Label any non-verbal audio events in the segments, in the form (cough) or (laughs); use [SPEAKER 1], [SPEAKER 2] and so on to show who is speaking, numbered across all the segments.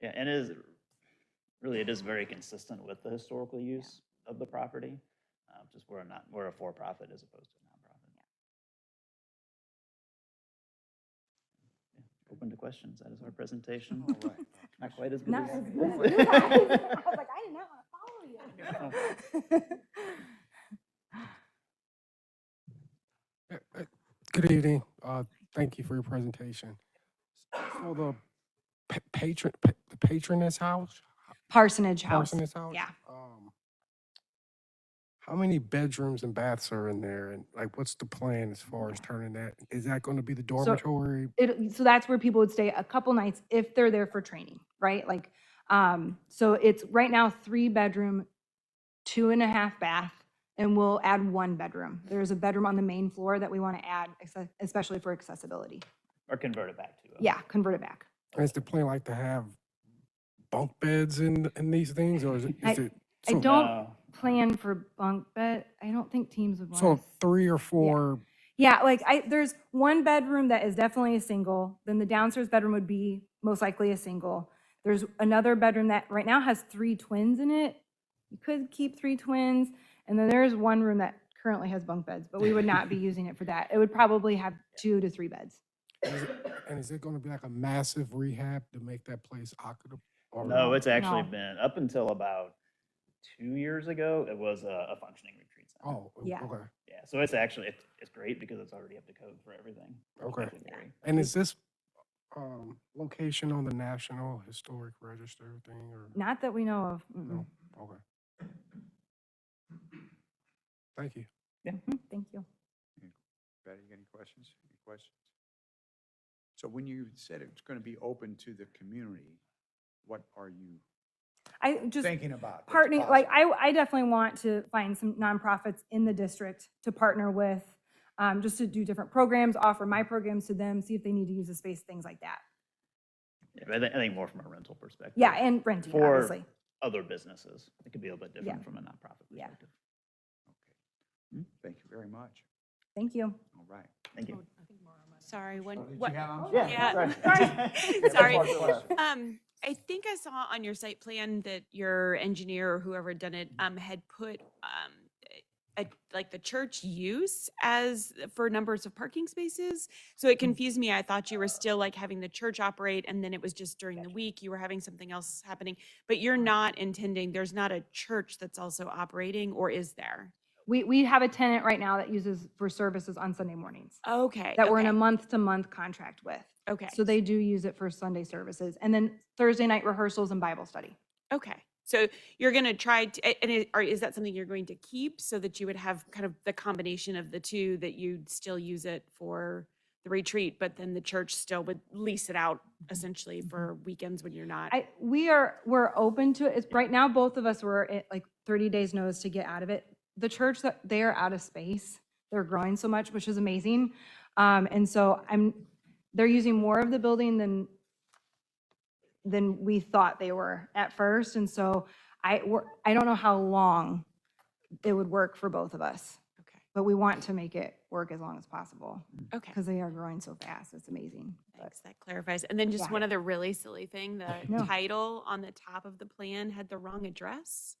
[SPEAKER 1] Yeah, and it is, really, it is very consistent with the historical use of the property. uh, Just we're not, we're a for-profit as opposed to a nonprofit. Yeah, Open to questions. That is our presentation.
[SPEAKER 2] All right.
[SPEAKER 1] Not quite as good
[SPEAKER 3] Not
[SPEAKER 1] as.
[SPEAKER 3] as good as you guys. I (laughs) was like, I did not want to follow you.
[SPEAKER 2] Uh, uh, Good evening. Uh, Thank you for your presentation. So the pa- patron, pa- the patroness house?
[SPEAKER 3] (laughs) Parsonage House.
[SPEAKER 2] Parsoness house?
[SPEAKER 3] yeah.
[SPEAKER 2] um, How many bedrooms and baths are in there? And like, what's the plan as far as turning that? Is that going to be the dormitory?
[SPEAKER 3] It, so that's where people would stay a couple nights if they're there for training, right? Like, um, so it's right now three bedroom, two and a half bath, and we'll add one bedroom. There's a bedroom on the main floor that we want to add, acce- especially for accessibility.
[SPEAKER 1] Or convert it back to. a-
[SPEAKER 3] Yeah, convert it back.
[SPEAKER 2] Is the plan like to have bunk beds in, in these things or is it?
[SPEAKER 3] I-
[SPEAKER 2] is it-
[SPEAKER 3] I
[SPEAKER 2] so-
[SPEAKER 3] don't
[SPEAKER 1] No,
[SPEAKER 3] Plan for bunk bed. I don't think teams would want.
[SPEAKER 2] So three or four
[SPEAKER 3] Yeah, like I, there's one bedroom that is definitely a single, then the downstairs bedroom would be most likely a single. There's another bedroom that right now has three twins in it. You could keep three twins. And then there's one room that currently has bunk beds, but we would not be using it for that. It would probably have two to three beds.
[SPEAKER 2] Is it- And is it gonna be like a massive rehab to make that place occupable? or-
[SPEAKER 1] No, it's actually
[SPEAKER 3] No.
[SPEAKER 1] been, up until about two years ago, it was a a functioning retreat center.
[SPEAKER 2] Oh, o-
[SPEAKER 3] Yeah.
[SPEAKER 2] okay,
[SPEAKER 1] Yeah, so it's actually, it's, it's great because it's already up to code for everything.
[SPEAKER 2] okay.
[SPEAKER 1] It's very-
[SPEAKER 2] And is this, um, location on the National Historic Register thing or?
[SPEAKER 3] Not that we know of. Mm-mm.
[SPEAKER 2] No, okay. Thank you.
[SPEAKER 3] Mm, Thank you.
[SPEAKER 4] Betty, you got any questions? Any questions? So when you said it's going to be open to the community, what are you
[SPEAKER 3] I just.
[SPEAKER 4] thinking about? that's
[SPEAKER 3] partnering, like,
[SPEAKER 4] possible?
[SPEAKER 3] I, I definitely want to find some nonprofits in the district to partner with, um, just to do different programs, offer my programs to them, see if they need to use the space, things like that.
[SPEAKER 1] Yeah, but I think- I think more from a rental perspective.
[SPEAKER 3] Yeah, and renting,
[SPEAKER 1] For-
[SPEAKER 3] obviously.
[SPEAKER 1] other businesses. It could be a little bit different from a nonprofit
[SPEAKER 3] Yeah.
[SPEAKER 1] perspective.
[SPEAKER 4] Okay. Hmm, Thank you very much.
[SPEAKER 3] Thank you.
[SPEAKER 4] All right.
[SPEAKER 1] Thank you.
[SPEAKER 5] Sorry, when,
[SPEAKER 4] Did you
[SPEAKER 5] what?
[SPEAKER 4] have- I'm
[SPEAKER 1] Yeah,
[SPEAKER 4] sorry.
[SPEAKER 5] Yeah.
[SPEAKER 3] (laughs)
[SPEAKER 1] sorry.
[SPEAKER 5] (laughs)
[SPEAKER 4] (laughs)
[SPEAKER 5] Sorry.
[SPEAKER 4] One question.
[SPEAKER 5] Um, I think I saw on your site plan that your engineer or whoever had done it, um, had put, um, a, like the church use as for numbers of parking spaces. So it confused me. I thought you were still like having the church operate and then it was just during the week, you were having something else happening. But you're not intending, there's not a church that's also operating or is there?
[SPEAKER 3] We, we have a tenant right now that uses for services on Sunday mornings,
[SPEAKER 5] Okay.
[SPEAKER 3] that we're in a
[SPEAKER 5] okay,
[SPEAKER 3] month-to-month contract with.
[SPEAKER 5] Okay.
[SPEAKER 3] So they do use it for Sunday services, and then Thursday night rehearsals and Bible study.
[SPEAKER 5] Okay, so you're gonna try to, a- and i- are, is that something you're going to keep so that you would have kind of the combination of the two, that you'd still use it for the retreat, but then the church still would lease it out essentially for weekends when you're not?
[SPEAKER 3] Mm-hmm. I, we are, we're open to it. It's, right now, both of us were at like thirty days notice to get out of it. The church, that they are out of space. They're growing so much, which is amazing. Um, and so I'm, they're using more of the building than, than we thought they were at first. And so I, we're, I don't know how long it would work for both of us,
[SPEAKER 5] Okay,
[SPEAKER 3] but we want to make it work as long as possible
[SPEAKER 5] okay.
[SPEAKER 3] because they are growing so fast. It's amazing. But-
[SPEAKER 5] Thanks, that clarifies. And then just
[SPEAKER 3] Yeah.
[SPEAKER 5] one other really silly thing, the
[SPEAKER 3] No.
[SPEAKER 5] title on the top of the plan had the wrong address.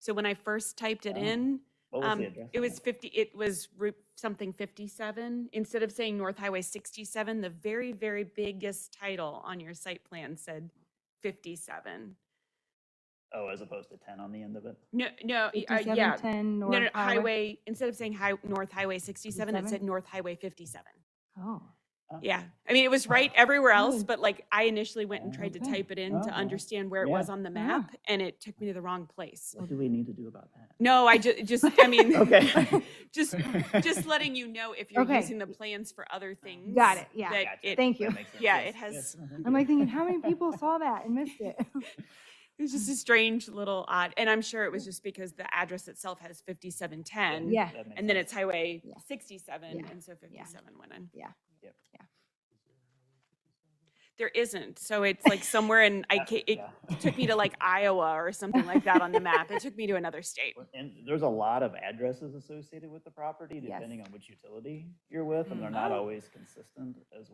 [SPEAKER 5] So when I first typed it
[SPEAKER 1] Oh.
[SPEAKER 5] in,
[SPEAKER 1] What was
[SPEAKER 5] Um,
[SPEAKER 1] the address?
[SPEAKER 5] it
[SPEAKER 1] on
[SPEAKER 5] was
[SPEAKER 1] that?
[SPEAKER 5] fifty, it was Route something fifty-seven, instead of saying North Highway sixty-seven, the very, very biggest title on your site plan said fifty-seven.
[SPEAKER 1] Oh, as opposed to ten on the end of it?
[SPEAKER 5] No, no, y- uh, yeah,
[SPEAKER 3] 5710
[SPEAKER 5] no, no,
[SPEAKER 3] North Highway.
[SPEAKER 5] highway, instead of saying hi, North Highway sixty-seven, it
[SPEAKER 3] 57?
[SPEAKER 5] said North Highway fifty-seven.
[SPEAKER 3] Oh.
[SPEAKER 1] Oh,
[SPEAKER 5] Yeah, I mean, it was right everywhere else,
[SPEAKER 3] Oh.
[SPEAKER 5] but like, I initially went and tried to
[SPEAKER 1] Okay.
[SPEAKER 5] type it in
[SPEAKER 1] Oh,
[SPEAKER 5] to
[SPEAKER 1] wow.
[SPEAKER 5] understand where it
[SPEAKER 1] Yeah.
[SPEAKER 5] was on the
[SPEAKER 3] Yeah.
[SPEAKER 5] map, and it took me to the wrong place.
[SPEAKER 1] What do we need to do about that?
[SPEAKER 5] No, I ju- just, I
[SPEAKER 1] (laughs)
[SPEAKER 5] mean,
[SPEAKER 1] Okay.
[SPEAKER 5] just (laughs)
[SPEAKER 1] (laughs)
[SPEAKER 5] just letting you know if you're
[SPEAKER 3] Okay.
[SPEAKER 5] using the plans for other things.
[SPEAKER 3] Got it, yeah.
[SPEAKER 5] that
[SPEAKER 1] Gotcha.
[SPEAKER 5] it-
[SPEAKER 3] Thank
[SPEAKER 1] That
[SPEAKER 3] you.
[SPEAKER 1] makes sense.
[SPEAKER 5] Yeah,
[SPEAKER 1] Yes,
[SPEAKER 5] it has-
[SPEAKER 1] yes, no, thank
[SPEAKER 3] I'm like
[SPEAKER 1] you.
[SPEAKER 3] thinking, how
[SPEAKER 5] (laughs)
[SPEAKER 3] many people saw that and missed it?
[SPEAKER 5] It was just a strange little odd, and I'm sure it was just because the address itself has 5710.
[SPEAKER 3] Yeah.
[SPEAKER 1] That makes
[SPEAKER 5] And then
[SPEAKER 1] sense.
[SPEAKER 5] it's Highway
[SPEAKER 3] Yeah.
[SPEAKER 5] 67,
[SPEAKER 3] Yeah.
[SPEAKER 5] and so 57 went in.
[SPEAKER 1] Yep.
[SPEAKER 5] There isn't, so it's like somewhere in I
[SPEAKER 1] Yeah,
[SPEAKER 5] ca- it
[SPEAKER 1] yeah.
[SPEAKER 5] took me to like Iowa or something like that on the map. It took me to another state.
[SPEAKER 1] Well, And there's a lot of addresses associated with the property,
[SPEAKER 3] Yes.
[SPEAKER 1] depending on which utility you're with, and they're
[SPEAKER 5] Mm.
[SPEAKER 1] not
[SPEAKER 5] Oh.
[SPEAKER 1] always consistent as